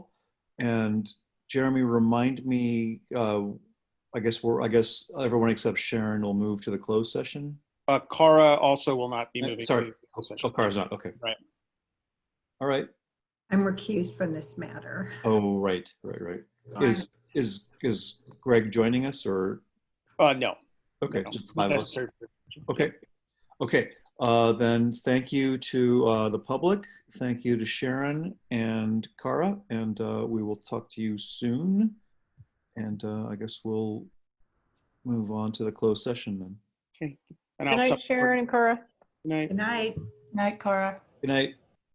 And Jeremy, remind me, uh, I guess we're, I guess everyone except Sharon will move to the closed session. Uh, Cara also will not be Uh, moving. sorry. to the closed Oh, session. Cara's not, okay. Right. All right. I'm recused from this matter. Oh, right, right, right. Is, is, is Greg joining us or, Uh, no. okay, no, just the not five of us. necessary. Okay, okay. Uh, Then thank you to uh, the public. Thank you to Sharon and Kara, and uh, we will talk to you soon. And uh, I guess we'll move on to the closed session then. Good And I'll night, supplement- Sharon and Cara. Good night. Good night. Night, Cora. Good night.